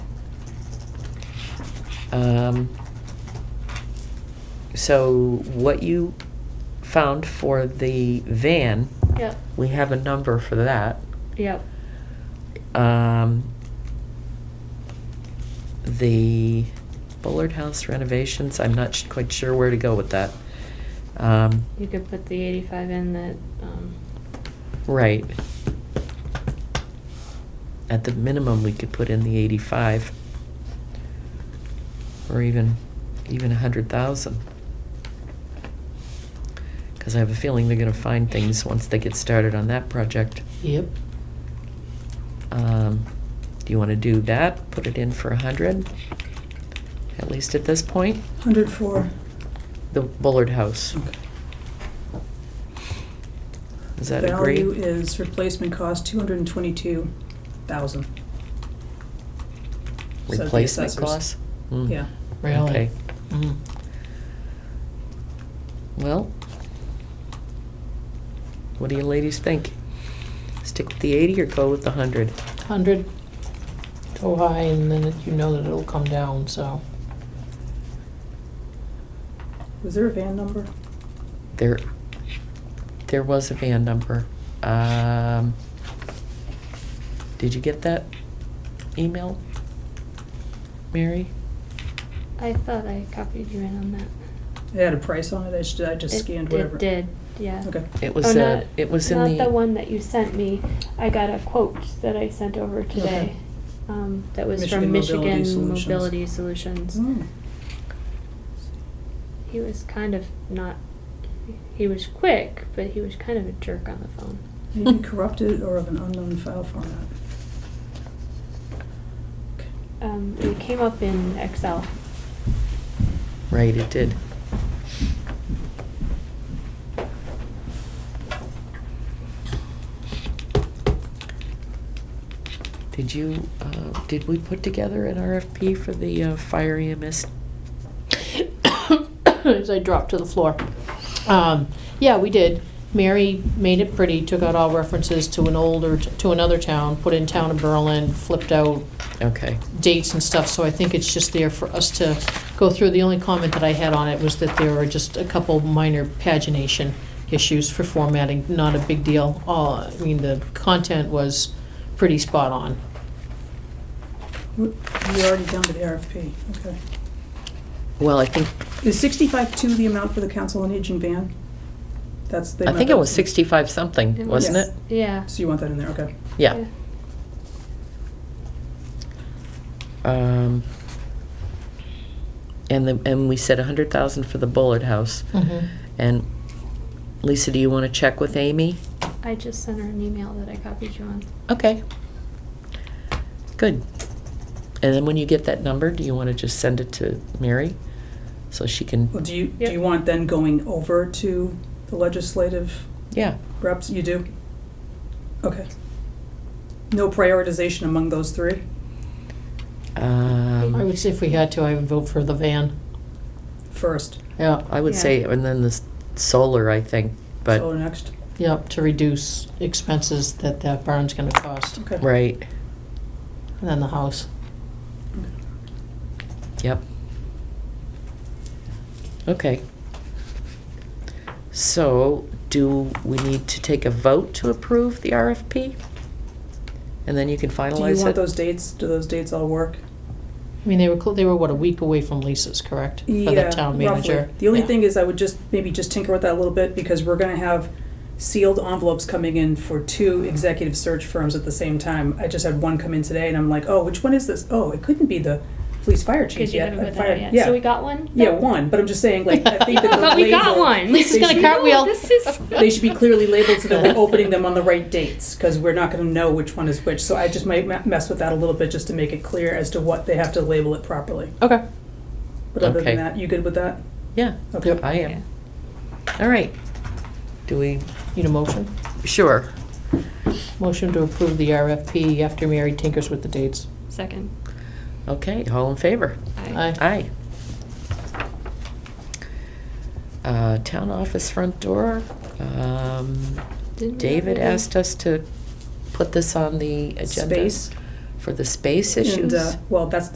Um, So what you found for the van, Yep, we have a number for that. yep. Um, The Bullard House renovations, I'm not sh- quite sure where to go with that. Um, You could put the eighty-five in that, um, Right. At the minimum, we could put in the eighty-five. Or even, even a hundred thousand. Cause I have a feeling they're gonna find things once they get started on that project. Yep. Um, do you wanna do that? Put it in for a hundred? At least at this point, 104. the Bullard House. Is that agree? Value is replacement cost 222,000. So the Replacement assessors- Hmm. costs? Mm. Yeah. Really? Okay. Mm. Well, what do you ladies think? Stick with the 80 or go with the 100? 100, go high, and then it- you know that it'll come down, so. Was there a van number? There, there was a van number. Um, Did you get that email, Mary? I thought I copied you in on that. It had a price on it, I just, I just It- scanned whatever. It did, yeah. Okay. It Oh, was, uh, not- it was in the... Not the one that you sent me, I got a quote that I sent over today, um, that was from Michigan Mobility Michigan Solutions. Mobility Solutions. Hmm. He was kind of not, he was quick, but he was kind of a jerk on the phone. Maybe corrupted or of an unknown file format. Okay. Um, it came up in Excel. Right, it did. Did you, uh, did we put together an RFP for the uh, fire EMS? As I dropped to the floor. Um, Yeah, we did. Mary made it pretty, took out all references to an older, to another town, put in town of Berlin, flipped out Okay, dates and stuff, so I think it's just there for us to go through. The only comment that I had on it was that there were just a couple minor pagination issues for formatting, not a big deal. All, I mean, the content was pretty spot on. We're we're already down to the RFP, okay. well, I think, Is 65 two the amount for the council on aging van? That's the I amount think it that- was sixty-five It something, was- wasn't it? Yeah. So you want that in there, okay. Yeah. Um, And the, and we said a hundred thousand for the Bullard House. Hmm. Mm-hmm. And Lisa, do you wanna check with Amy? I just sent her an email that I copied you on. Okay. Good. And then when you get that number, do you want to just send it to Mary? So she Well, can, do you, do Yep. you want then going over to the legislative yeah, reps? You do? Okay. No prioritization among those three? I um, would say if we had to, I would vote for the van. First, Yeah, I would Yeah. say, and then the s- solar, I think, but, so next, yeah, to reduce expenses that that barn's gonna cost, okay. right, and then the house. yep. Okay. So, do we need to take a vote to approve the RFP? And then you can Do you finalize want it? those dates? Do those dates all work? I mean, they were, cl- they were, what, a week away from Lisa's, correct? For the Yeah, town roughly. manager. The only Yeah. thing is I would just, maybe just tinker with that a little bit because we're gonna have sealed envelopes coming in for two executive search firms at the same time. I just had one come in today and I'm like, oh, which one is this? Oh, it couldn't be the police fire chief Because you yet. haven't put that Fire- out yet. So we got one? Yeah, one, but I'm just saying, like, I think that No, the but we got label- one. Lisa's They gonna should- cartwheel. This is. They should be clearly labeled so that we're opening them on the right dates, because we're not gonna know which one is which, so I just might me- mess with that a little bit just to make it clear as to what they have to label it properly. Okay. But other Okay. than that, you good with that? Yeah, Okay. I am. All right. Do we, Need a motion? sure. Motion to approve the RFP after Mary tinkers with the dates. Second. Okay, all in favor? Aye. Aye. Uh, Town office front door. um, Didn't we David already- asked us to put this on the agenda. Space. For the space And, issues. uh, Well, that's